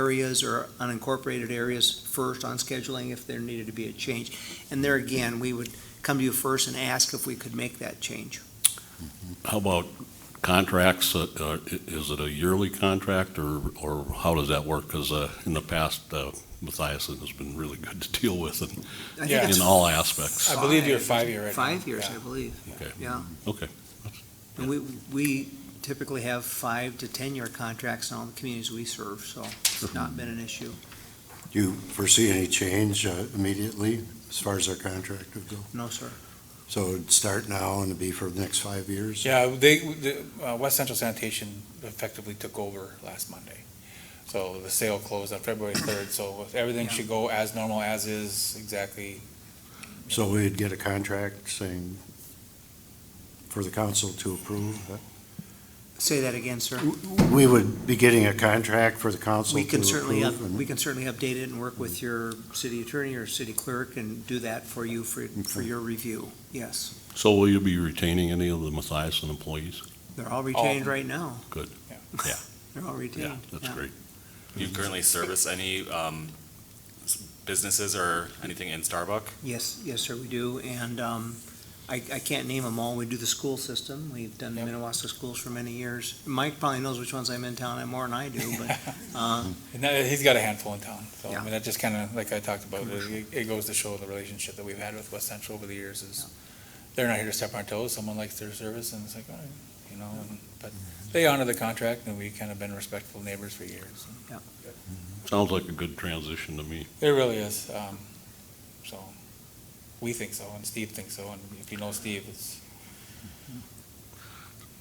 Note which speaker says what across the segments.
Speaker 1: areas or unincorporated areas first on scheduling if there needed to be a change. And there again, we would come to you first and ask if we could make that change.
Speaker 2: How about contracts? Uh, uh, i- Is it a yearly contract or, or how does that work? Because in the past, uh, Mathiasen has been really good to deal with in-
Speaker 1: I think
Speaker 3: Yeah.
Speaker 1: it's
Speaker 2: in all aspects.
Speaker 3: I believe you're
Speaker 1: five-
Speaker 3: five-year right now.
Speaker 1: Five years,
Speaker 3: Yeah.
Speaker 1: I believe,
Speaker 2: Okay.
Speaker 1: yeah.
Speaker 2: Okay.
Speaker 1: And we, we typically have five to 10-year contracts in all the communities we serve, so it's not been an issue.
Speaker 4: Do you foresee any change uh, immediately as far as our contract would go?
Speaker 1: No, sir.
Speaker 4: So it'd start now and it'd be for the next five years?
Speaker 3: Yeah, they, the, uh, West Central Sanitation effectively took over last Monday. So the sale closed on February third, so everything should go as normal as is, exactly.
Speaker 4: So we'd get a contract saying for the council to approve?
Speaker 1: Say that again, sir.
Speaker 4: We would be getting a contract for the council to
Speaker 1: We can
Speaker 4: approve?
Speaker 1: certainly, up-
Speaker 4: and-
Speaker 1: we can certainly update it and work with your city attorney or city clerk and do that for you, for, for
Speaker 4: Okay.
Speaker 1: your review, yes.
Speaker 2: So will you be retaining any of the Mathiasen employees?
Speaker 1: They're all retained
Speaker 3: Oh.
Speaker 1: right now.
Speaker 2: Good.
Speaker 3: Yeah.
Speaker 2: Yeah.
Speaker 1: They're all retained.
Speaker 2: Yeah, that's
Speaker 1: yeah.
Speaker 2: great.
Speaker 5: Do you currently service any um, s- businesses or anything in Starbuck?
Speaker 1: Yes, yes, sir, we do, and um, I I can't name them all. We do the school system. We've done the
Speaker 3: Yep.
Speaker 1: Minnewaska schools for many years. Mike probably knows which ones I'm in town and more than I do, but uh,
Speaker 3: And that- he's got a handful in town, so, I
Speaker 1: Yeah.
Speaker 3: mean, that just kinda, like I talked about, it, it goes to show the relationship that we've had with West Central over the years is, they're not here to step on our toes, someone likes their service, and it's like, all right, you know, and- but they honor the contract, and we've kinda been respectful neighbors for years.
Speaker 2: Sounds like a good transition to me.
Speaker 3: It really is, um, so, we think so, and Steve thinks so, and if you know Steve, it's,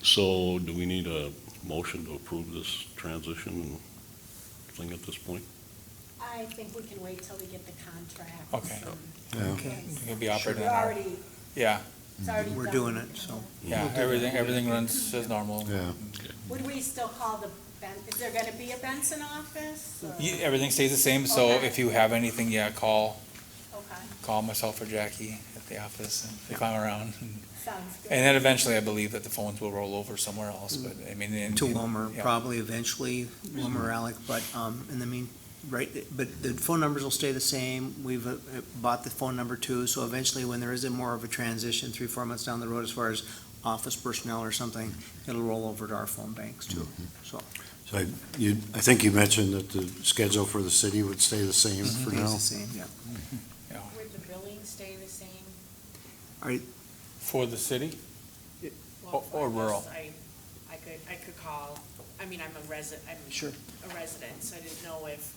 Speaker 2: So do we need a motion to approve this transition thing at this point?
Speaker 6: I think we can wait till we get the contract. Um,
Speaker 3: Okay.
Speaker 4: Yeah.
Speaker 1: Okay.
Speaker 3: It'll be
Speaker 6: We're
Speaker 3: operating on our,
Speaker 6: already,
Speaker 3: yeah,
Speaker 6: it's already
Speaker 1: We're
Speaker 6: done.
Speaker 1: doing it, so.
Speaker 3: yeah, everything, everything runs as normal.
Speaker 4: Yeah.
Speaker 6: Would we still call the, Ben- is there gonna be a Benson office? or-
Speaker 3: Ye- Everything stays the same, so
Speaker 6: Okay.
Speaker 3: if you have anything, yeah, call,
Speaker 6: Okay,
Speaker 3: call myself or Jackie at the office and if I'm around.
Speaker 6: sounds
Speaker 3: And
Speaker 6: good.
Speaker 3: then eventually, I believe that the phones will roll over somewhere else, but I mean. in-
Speaker 1: To
Speaker 3: in-
Speaker 1: Wilmer,
Speaker 3: yeah. Mm-hmm.
Speaker 1: probably eventually, Wilmer or Alec, but um, in the mean, right, but the phone numbers will stay the same. We've uh, bought the phone number too, so eventually when there is a more of a transition, three, four months down the road as far as office personnel or something, it'll roll over to our phone banks too,
Speaker 3: Mm-hmm.
Speaker 1: so.
Speaker 4: So I- you, I think you mentioned that the schedule for the city would stay the same for
Speaker 1: It's
Speaker 4: now?
Speaker 1: the same, yeah.
Speaker 6: Would the billing stay the same?
Speaker 3: For the city?
Speaker 7: Well,
Speaker 3: Oh, Or- or
Speaker 7: for this,
Speaker 3: rural.
Speaker 7: I, I could, I could call, I mean, I'm a resident, I'm
Speaker 1: Sure.
Speaker 7: a resident, so I didn't know if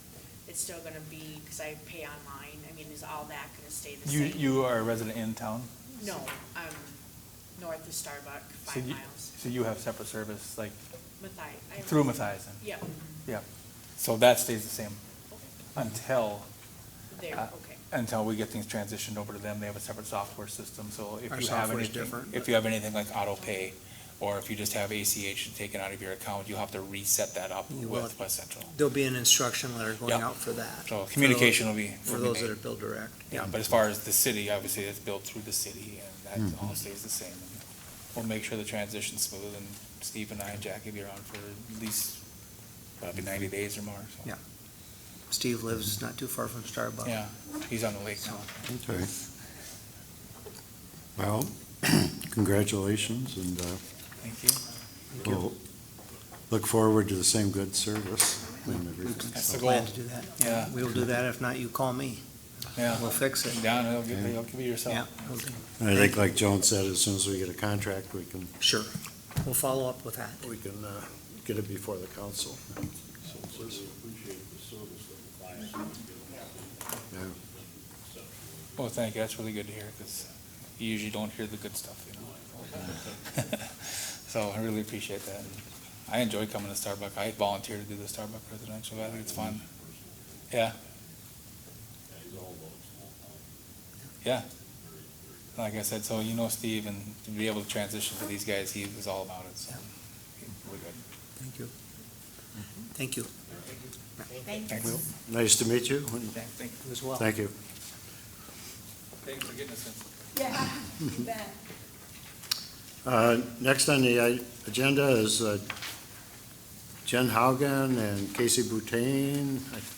Speaker 7: it's still gonna be, because I pay online, I mean, is all that gonna stay the
Speaker 3: You,
Speaker 7: same?
Speaker 3: you are a resident in town,
Speaker 7: No, I'm north of Starbuck,
Speaker 3: So
Speaker 7: five
Speaker 3: you-
Speaker 7: miles,
Speaker 3: so you have separate service, like
Speaker 7: Mathi. I-
Speaker 3: through Mathiasen.
Speaker 7: Yeah,
Speaker 3: So that stays the same
Speaker 7: Okay.
Speaker 3: until
Speaker 7: there,
Speaker 3: Uh,
Speaker 7: okay.
Speaker 3: until we get things transitioned over to them, they have a separate software system, so if
Speaker 1: Our
Speaker 3: you have
Speaker 1: software is
Speaker 3: anything,
Speaker 1: different,
Speaker 3: if you have anything like auto pay, or if you just have ACH taken out of your account, you'll have to reset that up
Speaker 1: You will.
Speaker 3: with West Central.
Speaker 1: There'll be an instruction letter going
Speaker 3: Yeah.
Speaker 1: out for that.
Speaker 3: So communication will be.
Speaker 1: For
Speaker 3: will be
Speaker 1: those that
Speaker 3: made.
Speaker 1: are Bill Direct.
Speaker 3: Yeah, but as far as the city, obviously, it's built through the city, and
Speaker 1: Mm-hmm.
Speaker 3: that all stays the same. And We'll make sure the transition's smooth, and Steve and I and Jackie will be around for at least probably ninety days or more, so.
Speaker 1: Yeah. Steve lives not too far from Starbucks.
Speaker 3: Yeah, he's on the lake now.
Speaker 4: Okay. Well, congratulations and uh,
Speaker 3: Thank you.
Speaker 4: we'll look forward to the same good service and everything.
Speaker 3: That's
Speaker 4: so.
Speaker 3: the
Speaker 1: Plan
Speaker 3: goal.
Speaker 1: to do that.
Speaker 3: Yeah.
Speaker 1: We will do that. If not, you call me.
Speaker 3: Yeah.
Speaker 1: We'll fix it.
Speaker 3: Down, it'll give, it'll give you
Speaker 1: Yeah,
Speaker 3: yourself.
Speaker 1: we'll do.
Speaker 4: And I think like Joan said, as soon as we get a contract, we can,
Speaker 1: sure. We'll follow up with that.
Speaker 4: we can uh, get it before the council.
Speaker 3: Well, Oh, thank you, that's really good to hear, because you usually don't hear the good stuff, you know? So I really appreciate that. I enjoy coming to Starbucks, I volunteer to do the Starbucks residential, I think it's fun. Yeah. Yeah. Like I said, so you know Steve, and to be able to transition to these guys, he was all about it, so. We're good.
Speaker 1: Thank you.
Speaker 3: Mm-hmm.
Speaker 1: Thank you.
Speaker 3: Thanks.
Speaker 4: Nice to meet you.
Speaker 3: Thank
Speaker 1: You as well.
Speaker 4: Thank you.
Speaker 3: Thanks for getting us in.
Speaker 6: Yeah, you bet.
Speaker 4: Uh, Next on the uh, agenda is uh, Jen Haugen and Casey Boutain, I